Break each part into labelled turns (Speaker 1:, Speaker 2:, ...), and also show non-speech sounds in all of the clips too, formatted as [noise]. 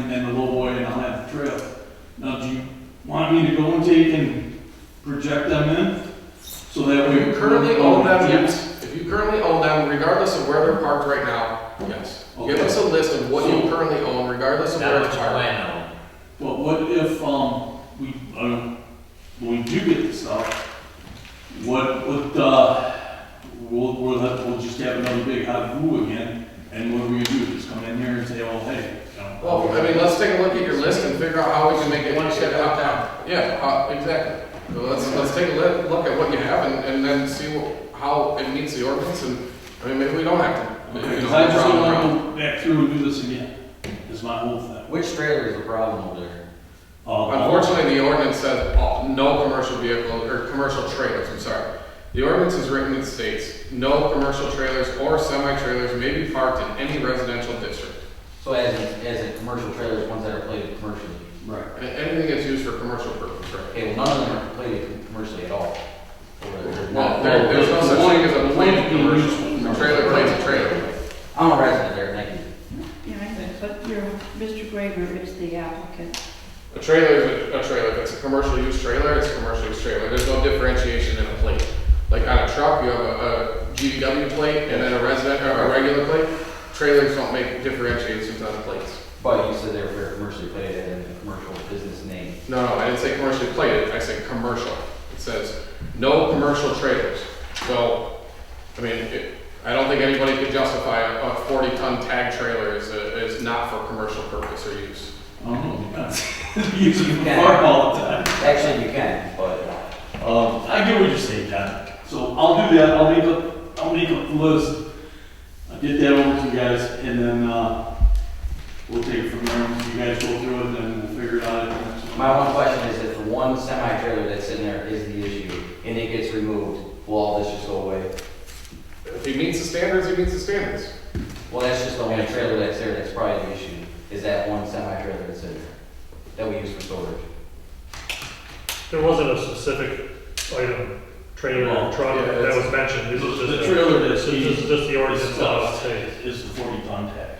Speaker 1: and then the low boy and I'll have the trail. Now, do you want me to go and take and project them in? So that
Speaker 2: If
Speaker 1: we.
Speaker 2: you currently own them, yes. If you currently own them, regardless of where they're parked right now, yes. Give
Speaker 1: Okay.
Speaker 2: us a list of what you
Speaker 1: So-
Speaker 2: currently own, regardless of where
Speaker 3: Not
Speaker 2: it's
Speaker 3: what you
Speaker 2: parked.
Speaker 3: plan on.
Speaker 1: But what if, um, we, uh, when we do get this up, what, what, uh, we'll, we'll, have- we'll just have another big hot-goo again, and what do we do, just come in here and say, oh, hey, you know.
Speaker 2: Well, I mean, let's take a look at your list and figure out how we can make it.
Speaker 3: One step at a time.
Speaker 2: Yeah, uh, exactly. So let's, let's take a li- look at what you have and, and then see wh- how it meets the ordinance and, I mean, maybe we don't have to. you know,
Speaker 1: Because I just don't
Speaker 2: round and round.
Speaker 1: wanna go back through and do this again, is my whole thing.
Speaker 3: Which trailer is the problem over there?
Speaker 1: Uh,
Speaker 2: Unfortunately, the ordinance says all- no commercial vehicle, or commercial trailers, I'm sorry. The ordinance is written that states, no commercial trailers or semi-trailers may be parked in any residential district.
Speaker 3: So as, in- as in commercial trailers, ones that are plated commercially.
Speaker 1: Right.
Speaker 2: A- Anything that's used for commercial purpose, right?
Speaker 3: Okay, well, none of them are plated commercially at all. Or they're
Speaker 2: Well,
Speaker 3: not-
Speaker 2: there, there's no such thing as a plain commercial, a trailer plays a trailer.
Speaker 3: I'm a resident there, thank you.
Speaker 4: Yeah, I know, but your, Mr. Graver is the applicant.
Speaker 2: A trailer is a, a trailer, if it's a commercial use trailer, it's a commercial use trailer, there's no differentiation in a plate. Like on a truck, you have a, a GVW plate and then a resident, or a regular plate, trailers don't make differentiations on the plates.
Speaker 3: But you said they were for commercially plated and a commercial business name.
Speaker 2: No, no, I didn't say commercially plated, I said commercial. It says, no commercial trailers. So, I mean, it, I don't think anybody could justify a a forty-ton tag trailer is, a- is not for commercial purpose or use.
Speaker 1: I don't [laughs] know, using the bar all the time.
Speaker 3: Actually, you can, but
Speaker 1: Um, I get what you're saying, John. So I'll do that, I'll make a, I'll make a list, I'll get that over to you guys, and then, uh, we'll take it from there, you guys go through it, and we'll figure it out. at the next one.
Speaker 3: my one question is if the one semi-trailer that's in there is the issue and it gets removed, will all this just go away?
Speaker 2: If he meets the standards, he meets the standards.
Speaker 3: Well, that's just the only trailer that's there that's probably the issue, is that one semi-trailer that's in there that we use for storage.
Speaker 5: There wasn't a specific item, trailer,
Speaker 1: Well,
Speaker 5: or truck
Speaker 2: yeah,
Speaker 5: that
Speaker 2: it's-
Speaker 5: was mentioned, this is
Speaker 1: The
Speaker 5: just. a-
Speaker 1: trailer that
Speaker 5: This
Speaker 1: he-
Speaker 5: is just the ordinance
Speaker 1: it's
Speaker 5: that
Speaker 1: tough.
Speaker 5: states.
Speaker 1: It's the forty ton tag,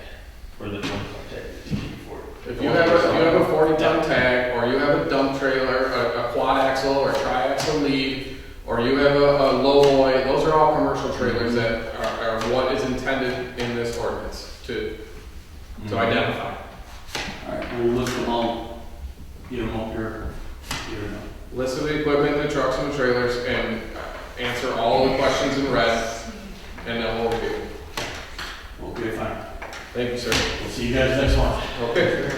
Speaker 1: or the twenty ton tag, it's forty.
Speaker 2: If you have, a- if you have a forty-ton tag, or you have a dump trailer, a, a quad axle or tri-axle lead, or you have a, a low boy, those are all commercial trailers that are, are what is intended in this ordinance to, to identify.
Speaker 1: Alright, Mm-hmm. we'll list them all, get them up here, here and up.
Speaker 2: list of the equipment, the trucks and the trailers, and uh, answer all the questions in red, and then we'll review.
Speaker 1: Okay, fine,
Speaker 2: Thank you, sir.
Speaker 1: we'll see you guys next one.
Speaker 2: Okay.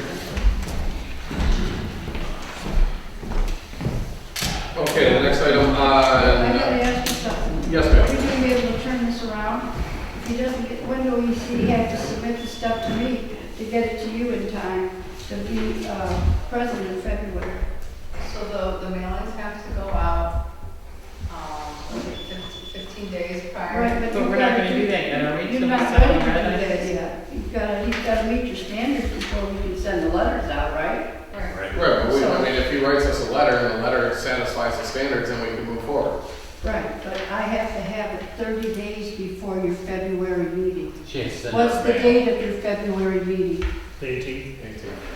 Speaker 2: Okay, the next item,
Speaker 4: I gotta
Speaker 2: uh,
Speaker 4: ask you something.
Speaker 2: yes, ma'am.
Speaker 4: Are you gonna be able to turn this around? If he doesn't get, when do we see, he have to submit the stuff to me to get it to you in time to be, uh, present in February?
Speaker 6: So the, the mailings have to go out, um, fif- fifteen days prior.
Speaker 4: Right, but
Speaker 7: But
Speaker 4: you've
Speaker 7: we're not
Speaker 4: gotta
Speaker 7: gonna do that yet, are we?
Speaker 4: You're
Speaker 7: So we
Speaker 4: not
Speaker 7: send them
Speaker 4: ready to
Speaker 7: red
Speaker 4: do that
Speaker 7: letters?
Speaker 4: yet. You've gotta, you've gotta meet your standards before you can send the letters out, right?
Speaker 6: Right.
Speaker 2: Right, but we, I mean, if he writes us a letter and the letter satisfies the standards, then we can move forward.
Speaker 4: Right, but I have to have it thirty days before your February meeting.
Speaker 3: She has sent
Speaker 4: What's the date of your February meeting?
Speaker 5: Eighteen,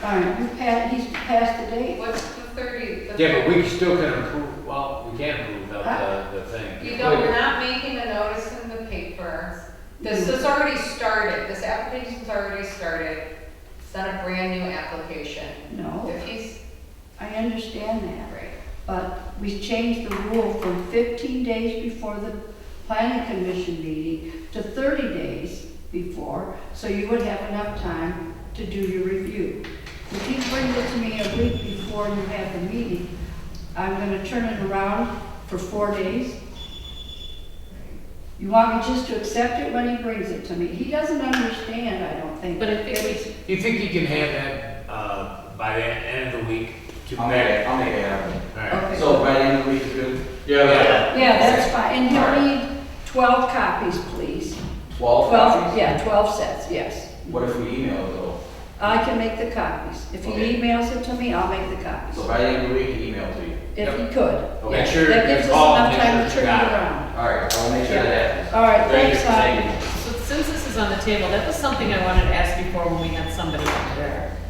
Speaker 4: All right, you passed, he's passed the date?
Speaker 6: What's the thirty? the-
Speaker 8: Yeah, but we still can approve, well, we can approve without the, the thing.
Speaker 6: You know, we're not making a notice in the paper. This has already started, this application's already started. It's not a brand new application.
Speaker 4: No,
Speaker 6: If he's,
Speaker 4: I understand that.
Speaker 6: right,
Speaker 4: But we changed the rule from 15 days before the planning commission meeting to 30 days before, so you would have enough time to do your review. If you bring it to me a week before you have the meeting, I'm gonna turn it around for four days. You want me just to accept it when he brings it to me? He doesn't understand, I don't think.
Speaker 7: But I think we
Speaker 8: You think you can have that, uh, by the end of the week? to
Speaker 4: Oh.
Speaker 3: I'll make it, I'll make it happen.
Speaker 8: All right.
Speaker 4: Okay.
Speaker 3: So by the end of the week, it's good?
Speaker 2: Yeah, that-
Speaker 4: Yeah, that's fine, and you'll need 12 copies, please.
Speaker 3: Twelve
Speaker 4: 12,
Speaker 3: copies?
Speaker 4: yeah, 12 sets, yes.
Speaker 3: What if we email it though?
Speaker 4: I can make the copies. If he
Speaker 3: Okay.
Speaker 4: emails it to me, I'll make the copies,
Speaker 3: So by the end of the week, email to you.
Speaker 4: if he could.
Speaker 3: Okay.
Speaker 8: Make sure
Speaker 4: Oh. That gives us
Speaker 8: you call and
Speaker 4: enough
Speaker 8: make sure
Speaker 4: time to
Speaker 8: you
Speaker 4: turn it
Speaker 8: got it.
Speaker 4: around.
Speaker 3: All right, I will make sure that happens.
Speaker 4: All right,
Speaker 3: Thank you.
Speaker 4: thanks,
Speaker 3: Thank
Speaker 4: Heidi.
Speaker 3: you.
Speaker 7: So since this is on the table, that was something I wanted to ask before when we had somebody up there.